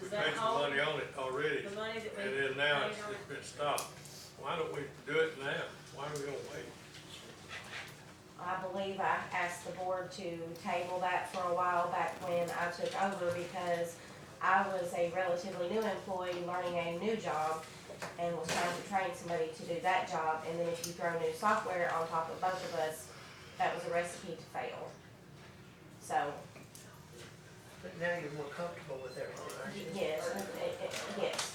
that spent the all- money on it already, The money that we. and then now it's, paid on it's it? been stopped. Why don't we do it now? Why are we gonna wait? I believe I asked the board to table that for a while back when I took over because I was a relatively new employee learning a new job and was trying to train somebody to do that job. And then if you throw new software on top of both of us, that was a recipe to fail. So, But now you're more comfortable with everything, aren't you? yes, it- it- it- yes.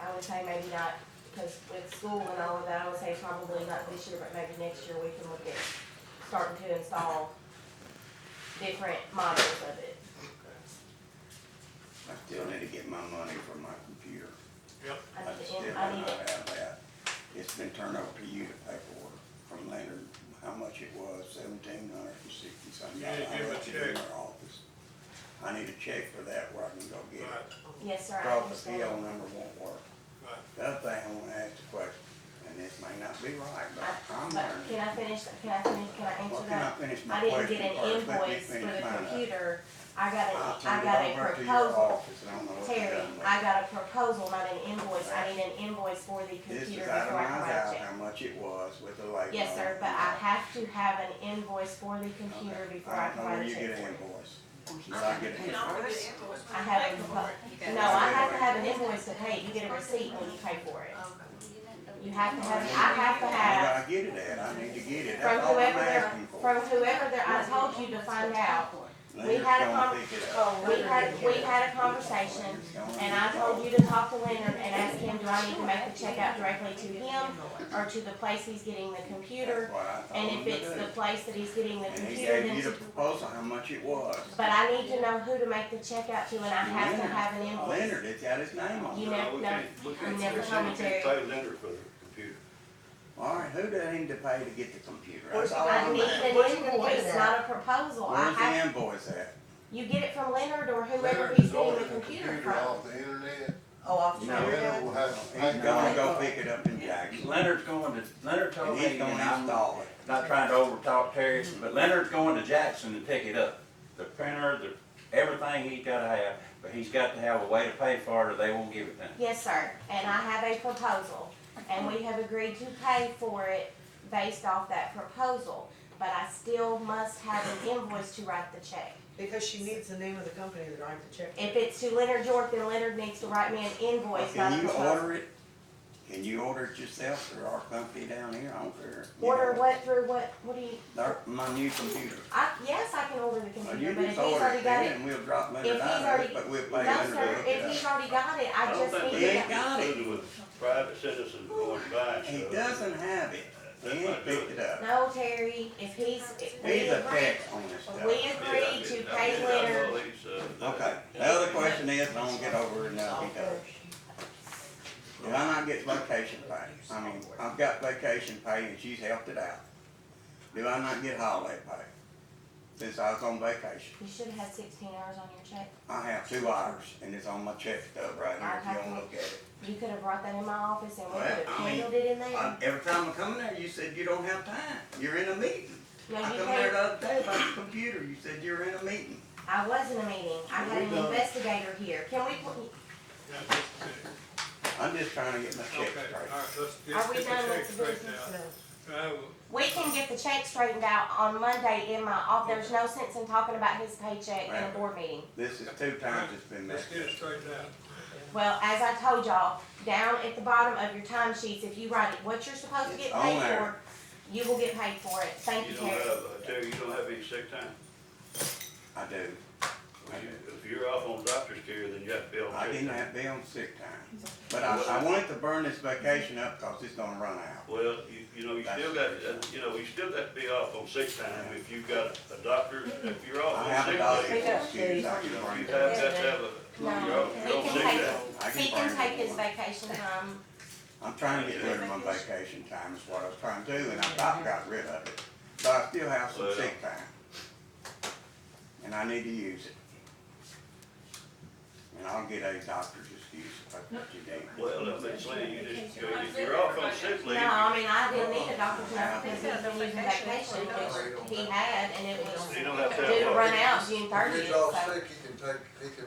I would say maybe not, because with school and all of that, I would say probably not this year, but maybe next year we can look at starting to install different models of it. I still need to get my money from my computer. Yep, I I need still do to, not I need to, have that. It's been turned over to you to pay for from Leonard, how much it was, seventeen hundred and sixty something. You need to I give a left it in check. their office. I need a check for that where I can go get right, it. yes, sir, I Because the PO understand. number won't work. right. The other thing I wanna ask the question, and this may not be right, but I- I'm But learning. can I finish, can I finish, can I Well, answer can I that? finish my I question didn't get an first? Let me invoice for finish the mine up. computer, I got I'll a, turn I it got a over to your proposal office, and I don't know what you've Terry, done with I it. got a proposal, not an invoice, I need an invoice for the This computer is before I itemized write a out check. how much it was with the labor. Yes, on sir, it. but I have to have an invoice for the computer Okay. before I don't can know where write a you check. get an for it. invoice. Did I get it? You can always get invoice when I you have pay a for propo- it. You got No, it. I have to have an invoice to pay, you get a receipt when you pay for it. You have to have, I have to have, Where do I get it at? I need to get it. from That's all I'm whoever they're, asking for. from whoever they're, I told you to find out. we Leonard's had a gonna con- pick it up. Oh, we had, we had a conversation, Leonard's gonna and I pick it up. told you to talk to Leonard and ask him, do I need to make the check out directly to him or to the place he's getting the computer? That's what I told And him if to it's do. the place that he's getting the And he computer, gave then you the to proposal, how much it was. But I need to know who to make the check out to, and I have to Leonard- have an invoice. Leonard, it's got his name on You it. know- we no, can't- we can't- never we can't commentary. Pay lender for the computer. All right, who did I need to pay to get the computer? That's Where's- all I I'm need asking. Where's it an gonna be invoice, at? not a proposal. I Where's the have, invoice at? you get it from Leonard or whoever he's getting the computer from. Off the internet, Oh, off the No. internet? we'll have to He's pay gonna for it. go pick it up in Jackson. Leonard's going to, Leonard And told me, he's and gonna I'm install it. not trying to overtalk Terry, but Leonard's going to Jackson to pick it up. The printer, the, everything he's gotta have, but he's got to have a way to pay for it or they won't give it to him. Yes, sir, and I have a proposal, and we have agreed to pay for it based off that proposal. But I still must have an invoice to write the check. Because she needs the name of the company that writes the check. If it's to Leonard York, then Leonard needs to write me an invoice, not a Can you proposal. order it? Can you order it yourself through our company down here? I don't care. You Order know, what through what, what do you, their- My new computer. I, yes, I can order the Well, computer, you but if just he's order already it got it, then and we'll drop money if he's out of already- it, but we'll pay No, Leonard to sir, hook it if he's up. already got it, I I don't just need think He they ain't to, got it. included with private citizens going to buy stuff. He doesn't have it. He ain't picked it up. no, Terry, if he's, if we He's a agree, peck on this stuff. we Yeah, I agree to did- I pay did- I know Leonard, he's, uh, that- Okay, the other question is, and I won't get over it now if he does. Oh, Did I not get vacation pay? I mean, I've got vacation pay and she's helped it out. Do I not get holiday pay? Since I was on vacation. you should have had sixteen hours on your check. I have two hours, and it's on my check stub right here, if you don't look at it. You could have brought that in my office and we Well, could have I mean, handled it in I- there. Every time I come in there, you said you don't have time, you're in a meeting. No, I you come there the can't, other day about the computer, you said you were in a meeting. I was in a meeting, I had an investigator here, can we, put- Yeah, just a minute. I'm just trying to get my check Okay, all straight. right, let's just Are we get done the check with the straight business now. No. Uh, we can get the check straightened out on Monday in my off, there's no sense in talking about his paycheck in a board meeting. This is two times it's been Let's messed get it up. straightened out. Well, as I told y'all, down at the bottom of your time sheets, if you write it, what you're supposed to It's get on paid for, there. you will get paid for it. Thank You you, don't Terry. have, I tell you, you don't have any sick time. I do, If you- If you're off on doctor's care, then you have to be on I sick didn't time. have, to be on sick time. But I, I wanted to burn this vacation up, cause it's gonna run out. Well, you, you know, you That's- still got, uh, you know, you still got to be off on sick time if you've got a doctor, if you're off I on have a sick dollar time. Pick up, excuse, I You can know, burn you it. have got to have a, you're No, off, he you're on sick can time. I take, he burn can it take if his I want. vacation time. I'm trying to get rid of my vacation time is what I was trying to do, and I about got rid of it, but I still have some sick time. And I need to use it. And I'll get a doctor's excuse if that's what you need. Well, I'm just saying, you just, you know, if you're off on sick No, leave, I mean, I didn't need a doctor's note because He's he's got been no using vacation. vacation, which he had, and it was you due don't have to have. to off. run out June If thirtieth, he's off so. sick, he can take, he can